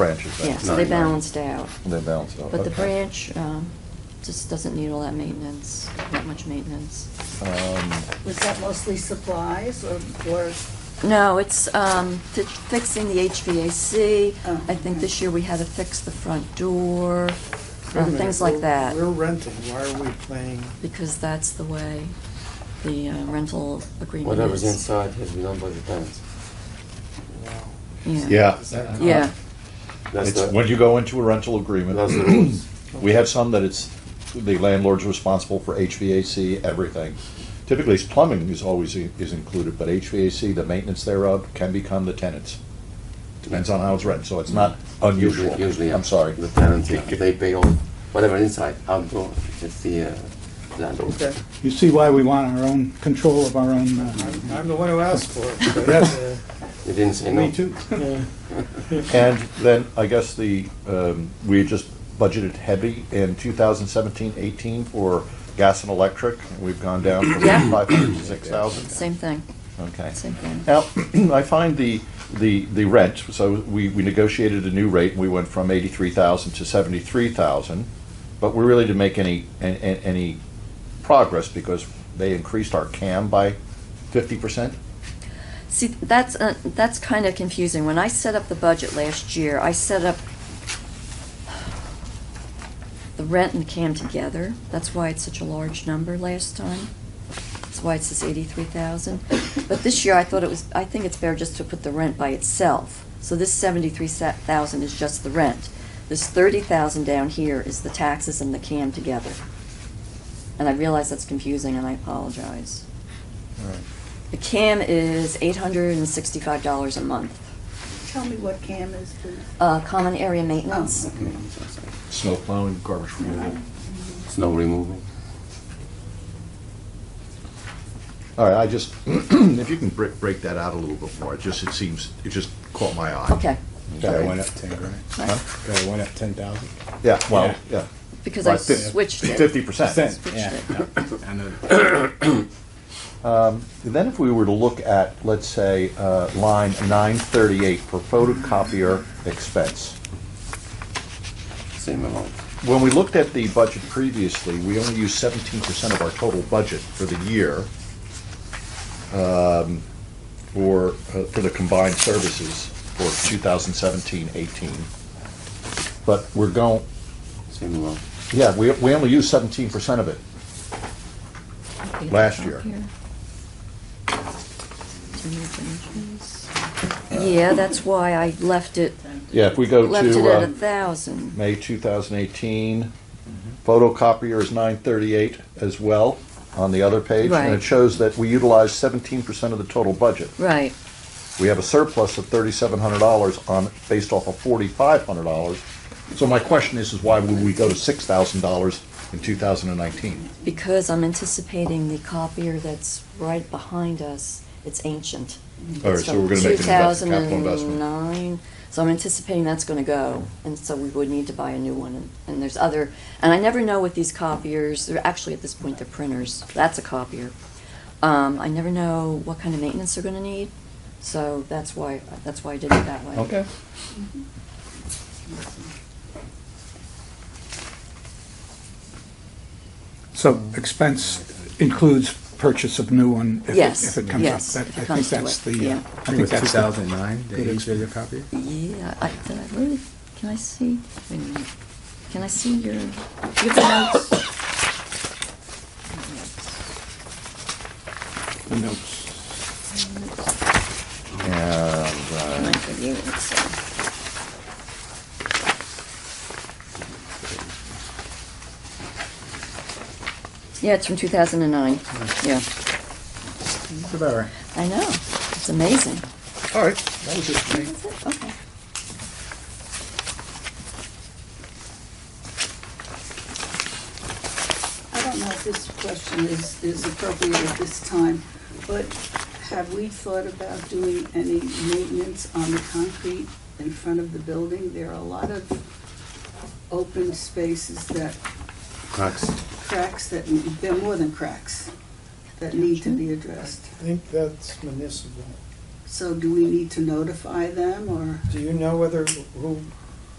branches. Yeah, so they balanced out. They balanced out, But the okay. branch um, just doesn't need all that maintenance, that much maintenance. Was that mostly supplies or, or, No, it's um, fi- fixing the HVAC. Oh, I think okay. this year we had to fix the front door, um, things like that, We're renting, why are we paying? because that's the way the uh, rental agreement is. Whatever's inside has been done by the tenants. wow. Yeah. Uh-huh. Is that- Yeah, That's It's- the, When you go into a rental that's the agreement, rules. we have some that it's, the landlord's responsible for HVAC, everything. Typically, it's plumbing is always, i- is included, but HVAC, the maintenance thereof, can become the tenant's. Depends on how it's rented, so it's not unusual. Usually- Usually, yeah. I'm sorry. The tenants, yeah, they pay all, whatever inside, outdoor, it's the uh, landlord. Okay, You see why we want our own control of our own, uh, I'm I'm the one who asked for it. but, Yes. They didn't say no. uh, Me too. Yeah. And then I guess the, um, we just budgeted heavy in 2017-18 for gas and electric. We've gone down from Yeah. 500 to 6,000. same thing, Okay. same thing. Now, I find the, the, the rent, so we, we negotiated a new rate, and we went from eighty-three thousand to seventy-three thousand, but we really didn't make any, an- an- any progress because they increased our CAM by fifty percent? See, that's, uh, that's kind of confusing. When I set up the budget last year, I set up the rent and the CAM together. That's why it's such a large number last time. That's why it says eighty-three thousand. But this year, I thought it was, I think it's fair just to put the rent by itself. So this seventy-three thousand is just the rent. This thirty thousand down here is the taxes and the CAM together. And I realize that's confusing, and I apologize. The CAM is eight hundred and sixty-five dollars a month. tell me what CAM is, please? Uh, common area Oh, maintenance, okay. Snow plowing, garbage removal. Snow removal. All right, I just, if you can break, break that out a little bit more, it just, it seems, it just caught my eye. okay. Guy went up ten grand. Guy went up ten thousand. Yeah, well, yeah. Because I switched it. Fifty percent. Percent, Switched yeah. it. I know. And Then if we were to look at, let's say, uh, line 938 for photocopier expense. Same amount. When we looked at the budget previously, we only used 17% of our total budget for the year um, for, uh, for the combined services for 2017-18. But we're going, Same amount. yeah, we, we only used 17% of it. last year. Yeah, that's why I left it, Yeah, if we go to. left it at uh, a thousand. May 2018. Photocopier is 938 as well on the other page. And Right. it shows that we utilize 17% of the total budget. Right, We have a surplus of $3,700 on, based off of $4,500. So my question is, is why would we go to $6,000 in 2019? because I'm anticipating the copier that's right behind us, it's ancient. All right, It's so from we're gonna make an investment, capital investment. 2009, so I'm anticipating that's gonna go, and so we would need to buy a new one, and- and there's other, and I never know with these copiers, they're actually at this point, they're printers, that's a copier. Um, I never know what kind of maintenance they're gonna need, so that's why, that's why I did it that way. Okay. so expense includes purchase of new one if it- Yes, if it comes up. yes, That- if it I comes think to that's it, the, yeah. uh, I I think think two that's thousand the, nine, the Good eight video copy. Yeah, I, did I really, can I see, wait a minute, can I see your, do you have the notes? the notes. I uh, might give you it, so. Yeah, it's from two thousand and nine, yeah, It's about right. I know, it's amazing. All right, that was it for me. That's it, okay. I don't know if this question is, is appropriate at this time, but have we thought about doing any maintenance on the concrete in front of the building? There are a lot of open spaces that, Cracks. cracks that, there are more than cracks, that need to be addressed. I think that's municipal. So do we need to notify them, or? Do you know whether, who